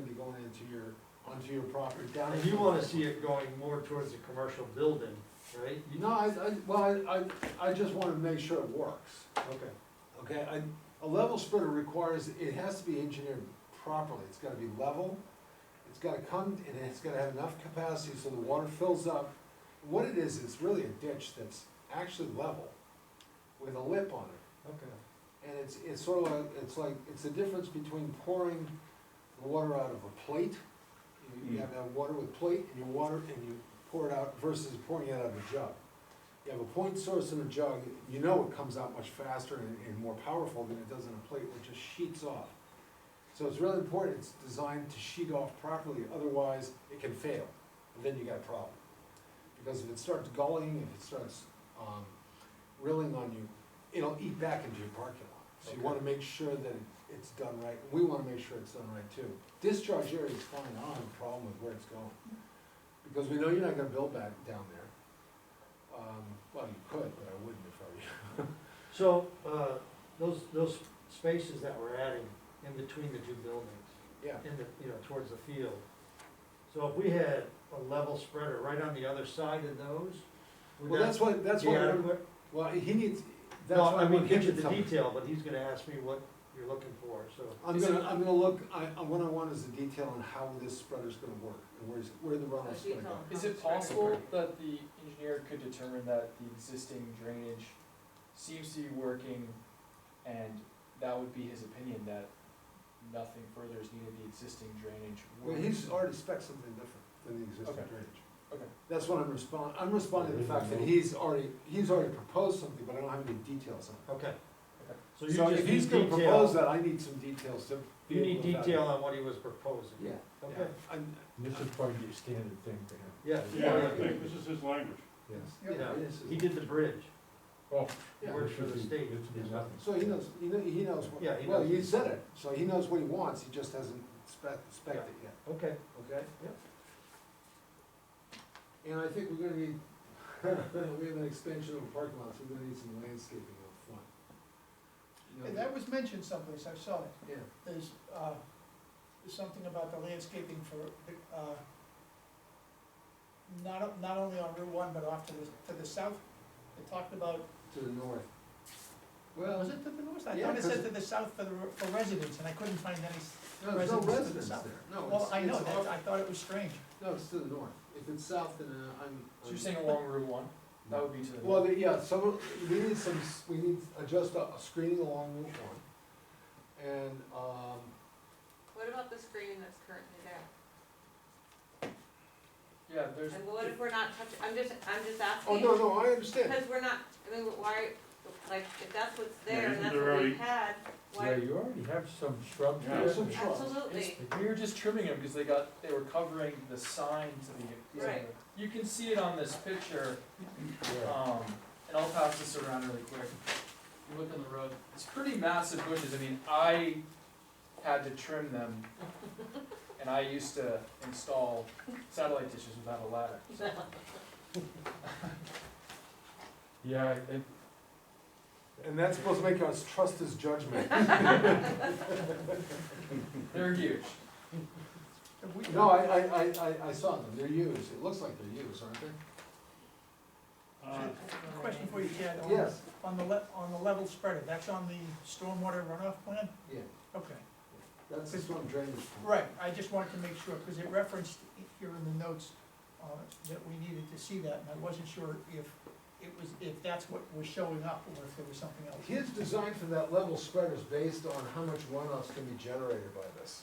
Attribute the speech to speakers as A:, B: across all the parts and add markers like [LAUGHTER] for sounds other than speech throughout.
A: going into your, onto your property down.
B: And you wanna see it going more towards the commercial building, right? You-
A: No, I, I, well, I, I, I just wanna make sure it works,
B: Okay,
A: okay? I, a level spreader requires, it has to be engineered properly, it's gotta be level, it's gotta come, and it's gotta have enough capacity so the water fills up. What it is, is really a ditch that's actually level, with a lip on it.
B: okay.
A: And it's, it's sort of like, it's like, it's the difference between pouring the water out of a plate. You- You
C: Mm.
A: have that water with plate and you water and you pour it out versus pouring it out of a jug. You have a point source in a jug, you know it comes out much faster and, and more powerful than it does in a plate, which just sheets off. So it's really important, it's designed to sheet off properly, otherwise it can fail, and then you got a problem. Because if it starts gulling, if it starts, um, rilling on you, it'll eat back into your parking lot. So you
B: Okay.
A: wanna make sure that it's done right, we wanna make sure it's done right too. Discharge area is fine, I don't have a problem with where it's going. Because we know you're not gonna build back down there. Um, well, you could, but I wouldn't if I were you. [LAUGHS]
B: So, uh, those, those spaces that we're adding in between the two buildings,
A: Yeah,
B: in the, you know, towards the field. So if we had a level spreader right on the other side of those, would
A: well, that's
B: that
A: what, that's
B: be
A: what, I'm-
B: adequate?
A: well, he needs, that's
B: No,
A: what
B: I
A: I'm
B: mean,
A: gonna
B: give
A: give
B: you
A: you
B: the detail, but he's gonna ask me what you're looking for, so.
A: I'm
C: Is
A: gonna, I'm gonna look, I, I- what I want is the detail on how this spreader's gonna work, and where's, where the runoff's gonna go.
D: Is it possible that the engineer could determine that the existing drainage seems to be working and that would be his opinion that nothing further is needed, the existing drainage
A: Well,
D: works?
A: he's already spec something different than the existing
D: Okay.
A: drainage.
D: Okay.
A: That's what I'm responding, I'm responding to the fact that he's already, he's already proposed something, but I don't have any details on
B: Okay.
D: Okay.
B: So
A: it.
B: you
A: So
B: just
A: if he's
B: need
A: gonna propose
B: detail,
A: that, I need some details to. be
B: you need
A: able to evaluate.
B: detail on what he was proposing.
A: Yeah.
B: Okay,
A: Yeah, I'm-
C: This is probably the standard thing for him.
B: yeah.
E: Yeah, I think this is his language.
C: Yes.
B: Yeah,
A: yeah, this is-
B: he did the bridge,
C: Oh.
A: Yeah.
B: works for the state.
C: It should be nothing.
A: So he knows, he knows, he knows, what-
B: Yeah, he
A: well,
B: knows.
A: he said it, so he knows what he wants, he just hasn't spec, spec it yet.
B: okay.
A: Okay?
B: Yep.
A: And I think we're gonna need, [LAUGHS] we have an expansion of parking lots, we're gonna need some landscaping up front. You know,
F: And that was mentioned someplace, I saw it.
A: Yeah,
F: There's, uh, there's something about the landscaping for, uh, not, not only on Route One, but off to the, to the south. It talked about, uh,
A: to the north.
F: was
A: Well,
F: it to the north? I
A: Yeah,
F: thought it said
A: 'cause-
F: to the south for the, for residents, and I couldn't find any. s-
A: no, there's no
F: residents to the
A: residents there,
F: south.
A: no,
F: Well,
A: it's,
F: I know,
A: it's
F: that, I
A: off,
F: thought it was strange.
A: no, it's to the north. If it's south, then uh, I'm.
D: So you're saying along Route one, that would be to the.
A: Well, the- yeah, some, we need some, s- we need to adjust a a screening along Route one. And, um,
G: What about the screening that's currently there?
D: Yeah, there's,
G: And what if we're not touching, I'm just, I'm just asking.
A: oh, no, no, I understand.
G: Because we're not, I mean, why, like, if that's what's
E: Yeah,
G: there
E: isn't
G: and that's
E: there
G: what
E: already-
G: we had,
C: Yeah,
G: why?
C: you already have some shrubs
E: Yeah.
C: there.
A: Some shrubs.
G: Absolutely,
D: it's- we were just trimming them because they got, they were covering the sign to the.
G: Right.
D: You can see it on this picture,
C: Yeah.
D: Um, and I'll pass this around really quick. You look on the road, it's pretty massive bushes, I mean, I had to trim them. And I used to install satellite dishes without a ladder, so.
C: Yeah, it,
A: And that's supposed to make us trust his judgment.
D: They're huge.
F: Have we-
A: No, I, I, I, I, I saw them, they're used, it looks like they're used, aren't they?
E: Uh,
F: Question for you, Chad. on-
A: Yes.
F: On the le, on the level spreader, that's on the stormwater runoff plan?
A: Yeah,
F: Okay.
A: that's the storm drainage. plan.
F: Right, I just wanted to make sure, because it referenced here in the notes, uh, that we needed to see that, and I wasn't sure if it was, if that's what was showing up, or if there was something else.
A: His design for that level spreader is based on how much runoff's gonna be generated by this.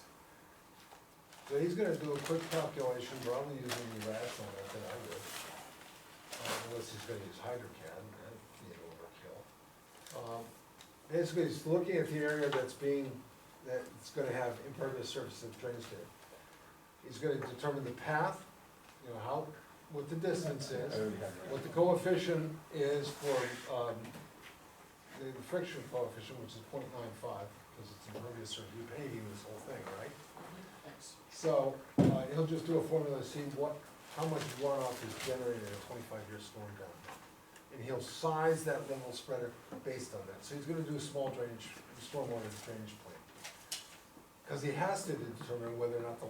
A: So he's gonna do a quick calculation, probably using the rational method I would. uh, Unless he's gonna use hydrocad, that'd be an overkill. Um, Basically, he's looking at the area that's being, that's gonna have impervious surface that drains to it. He's gonna determine the path, you know, how, what the distance is
C: I already have
A: what the coefficient is for, um, the friction coefficient, which is 0.95 because it's impervious surface, you're paving this whole thing, right? So, uh, he'll just do a formula, to see what, how much runoff is generated in a twenty-five year storm down. And he'll size that level spreader based on that, so he's gonna do a small drainage, stormwater drainage plan. Cause he has to determine whether or not the